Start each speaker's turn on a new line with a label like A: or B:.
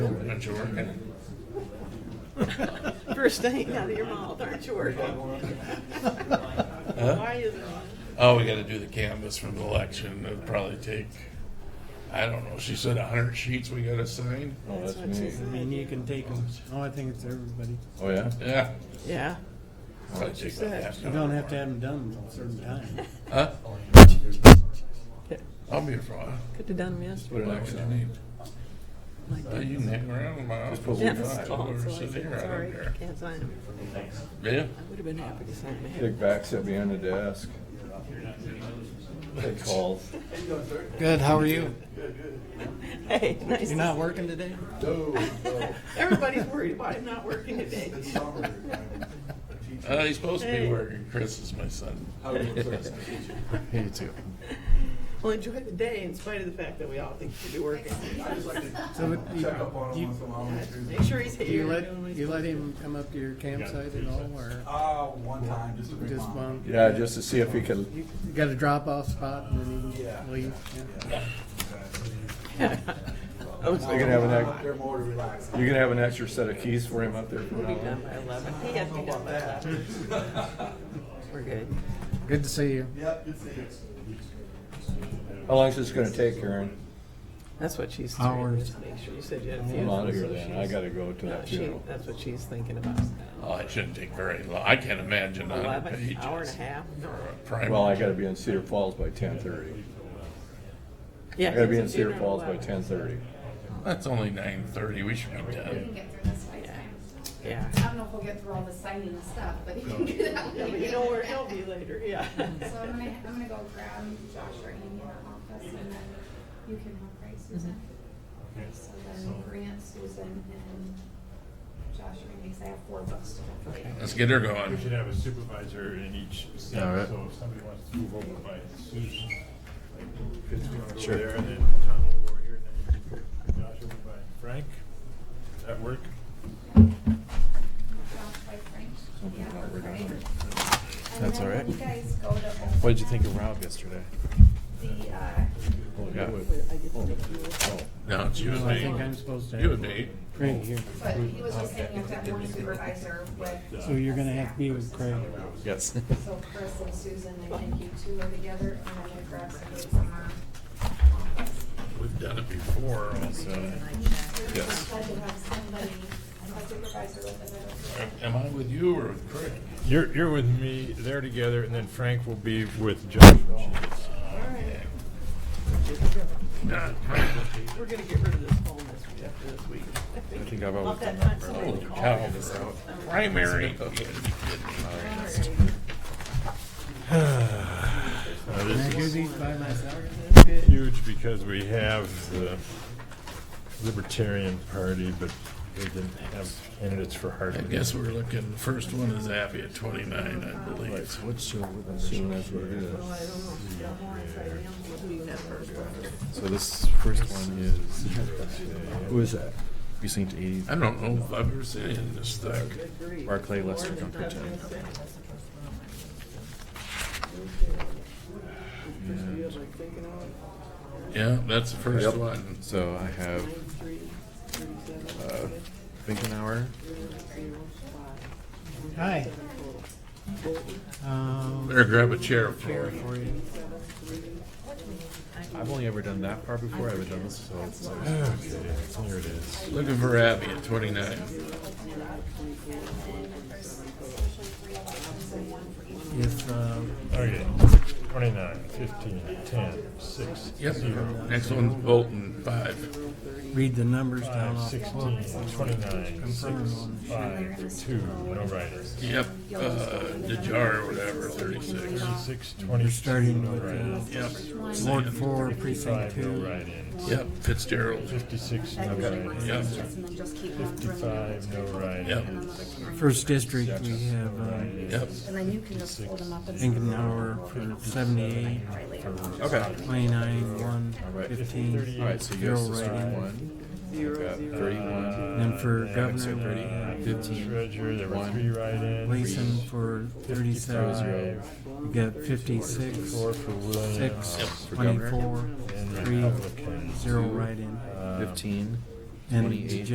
A: Aren't you
B: eh?
A: working?
C: First thing out of your mouth, aren't you working? Why is it?
A: Oh, we gotta do the canvas for the election. It'll probably take, I don't know, she said a hundred sheets we gotta sign?
B: Oh, that's
C: what she
B: me.
C: said.
D: And you can take them. Oh, I think it's everybody.
B: Oh, yeah?
A: Yeah.
C: Yeah.
A: Probably take about
C: said.
A: half an
D: You don't
A: hour
D: have to
A: more.
D: have them done at a certain time.
A: Huh?
B: Oh,
C: Could
A: I'll be here for a while.
C: have done them yesterday.
B: Put an
A: What
B: X
A: would you
B: on it.
A: need? Uh, You can hang around in my office.
B: put
A: if you
B: one
A: want.
B: on.
A: Or
C: So I
A: sit
C: said,
A: here, I
C: Oh, sorry,
A: don't care.
C: can't sign them.
A: Yeah.
C: I would have been happy to sign them.
B: Big back sit behind the desk. Take calls.
D: Good, how are you?
C: Hey, nice.
D: You're
C: to-
D: not working today?
C: Everybody's worried about him not working today.
A: Uh, he's supposed to be
C: Hey.
A: working. Chris is my son.
D: You too.
C: Well, enjoy the day in spite of the fact that we all think you should be working.
D: So what- you, you,
C: Make sure he's here.
D: you let, you let him come up to your campsite at all, or
E: Uh, one time, just to remind.
D: just one?
B: Yeah, just to see if he could,
D: You got a drop-off spot and then you
E: Yeah.
D: leave? Yeah.
B: you can have an, ex-
E: They're more relaxed.
B: you can have an extra set of keys for him up there. from now on.
C: Done by eleven. He has to be done by eleven. We're good.
D: Good to see you.
E: Yep, good things.
B: How long is this gonna take, Karen?
C: That's what she's trying to make sure. You said you had a
B: I'm
C: funeral.
B: out of here
C: so
B: then. I
C: she's-
B: gotta go to
C: No,
B: that
C: she,
B: funeral.
C: that's what she's thinking about.
A: Oh, it shouldn't take very long. I can't imagine a hundred
C: Eleven, hour and a
A: pages.
C: half?
A: for a primer.
B: Well, I gotta be in Cedar Falls by ten thirty.
C: Yeah.
B: I gotta be in
C: it's a
B: Cedar
C: funeral
B: Falls by
C: eleven.
B: ten thirty.
A: That's only nine thirty. We should be
F: can
A: done.
F: get through this by time.
C: Yeah.
F: I don't know if we'll get through all the signing and stuff, but you can get out.
C: Yeah, but you know where he'll be later, yeah.
F: So I'm gonna, I'm gonna go grab Josh or Amy in the office and then you can help, right, Susan?
D: Mm-hmm.
F: So then Grant, Susan, and Josh or Amy, 'cause I have four books to go through.
A: Let's get her going.
G: We should have a supervisor in each seat,
B: All right.
G: so if somebody wants to move over by Susan, like, Fitzgerald
B: Sure.
G: over there, and then Tom over here, and then you can put Josh over by Frank. Does that work?
F: Josh by Frank.
B: Something
F: Yeah,
B: about we're done.
F: right. And
B: That's
F: then
B: all
F: when
B: right.
F: you guys go to
B: What did you think of
F: open up
B: Rob yesterday?
F: The, uh,
B: Oh, Yeah. Oh.
A: No, it's you and
D: I think I'm
A: me.
D: supposed to.
A: You and me.
D: Craig here.
F: but he was just saying you have to have one supervisor with.
D: So you're gonna have to be with Craig.
B: Yes.
F: So Chris and Susan, I think you two are together, and I'm gonna grab some dates on our office.
A: We've done it before. Also.
B: Yes.
F: Glad to have somebody, a supervisor with them.
A: Am I with you or with Craig?
G: You're, you're with me, they're together, and then Frank will be with Josh when she gets.
A: Not Craig. with
C: We're gonna get rid of this whole mess we have for this week.
B: I think I've
C: Not
B: always
C: that
B: done
C: time
B: that.
A: the-
C: somebody
A: Holy
C: called.
A: cow. Primary.
G: Now,
D: Can I
G: this
D: do
G: is
D: these by myself?
G: huge because we have the Libertarian Party, but they didn't have candidates for
A: I
G: Hardwick.
A: guess we're looking, the first one is Appy at twenty-nine, I believe.
B: What's so, soon as what it
C: Well, I
B: is.
C: don't know. Yeah, more inside animals. Who do you have first?
H: So this first one is
B: Who is that?
H: precinct eighty,
A: I don't know if I've ever seen it in this thick.
C: Agree.
H: Barclay Lester
C: Or
H: Comfort
C: they're
H: Town.
C: not gonna say. First you
H: And
C: have, like, thinking out,
A: Yeah, that's the first one.
H: so I have
C: 93, 37,
H: uh, Finkenauer,
D: Hi. Um,
A: Better grab a chair for
D: chair
A: it.
D: for you.
H: I've only ever done that part before, I haven't done this, so it's always.
G: There it is.
A: Looking for Abby at twenty-nine.
D: If, um,
G: Okay, 29, 15, 10, 6,
A: Yep,
G: 0,
A: next one's Bolton, five.
D: read the numbers down
G: 5,
D: off. the
G: 16,
D: book.
G: 29, 6,
D: Confirm.
G: 5, 2, no writers.
A: Yep, uh, Dejar or whatever, thirty-six.
G: 6, 22,
D: starting
G: no
D: with, uh,
G: write-ins.
A: Yep.
D: Ward four, precinct
G: 55, no
D: two.
G: write-ins.
A: Yep, Fitzgerald.
G: 56, no write-ins.
A: Yep.
F: And then just keep one from.
G: 55, no write-ins.
D: First district, we have, um,
A: Yep.
F: And then you can just hold them up and.
D: Ingenauer for seventy-eight,
H: Okay.
D: twenty-nine, one, fifteen.
H: Alright, so you guys
D: Zero
H: just start
D: write-in.
H: one,
C: zero,
H: got
C: zero,
H: thirty-one,
D: Then for
G: Uh,
H: so
D: governor,
H: thirty,
G: Uh,
H: fifteen,
G: Treasurer, there were
H: One.
G: 3 write-ins.
D: Leeson for thirty-seven,
H: zero.
G: 55,
D: we got fifty-six,
G: 4 for Williams.
D: six,
H: For governor.
D: twenty-four,
G: And
D: three,
G: Republicans.
D: zero write-in.
G: Um,
H: uh, fifteen,
D: And
H: Twenty-eight.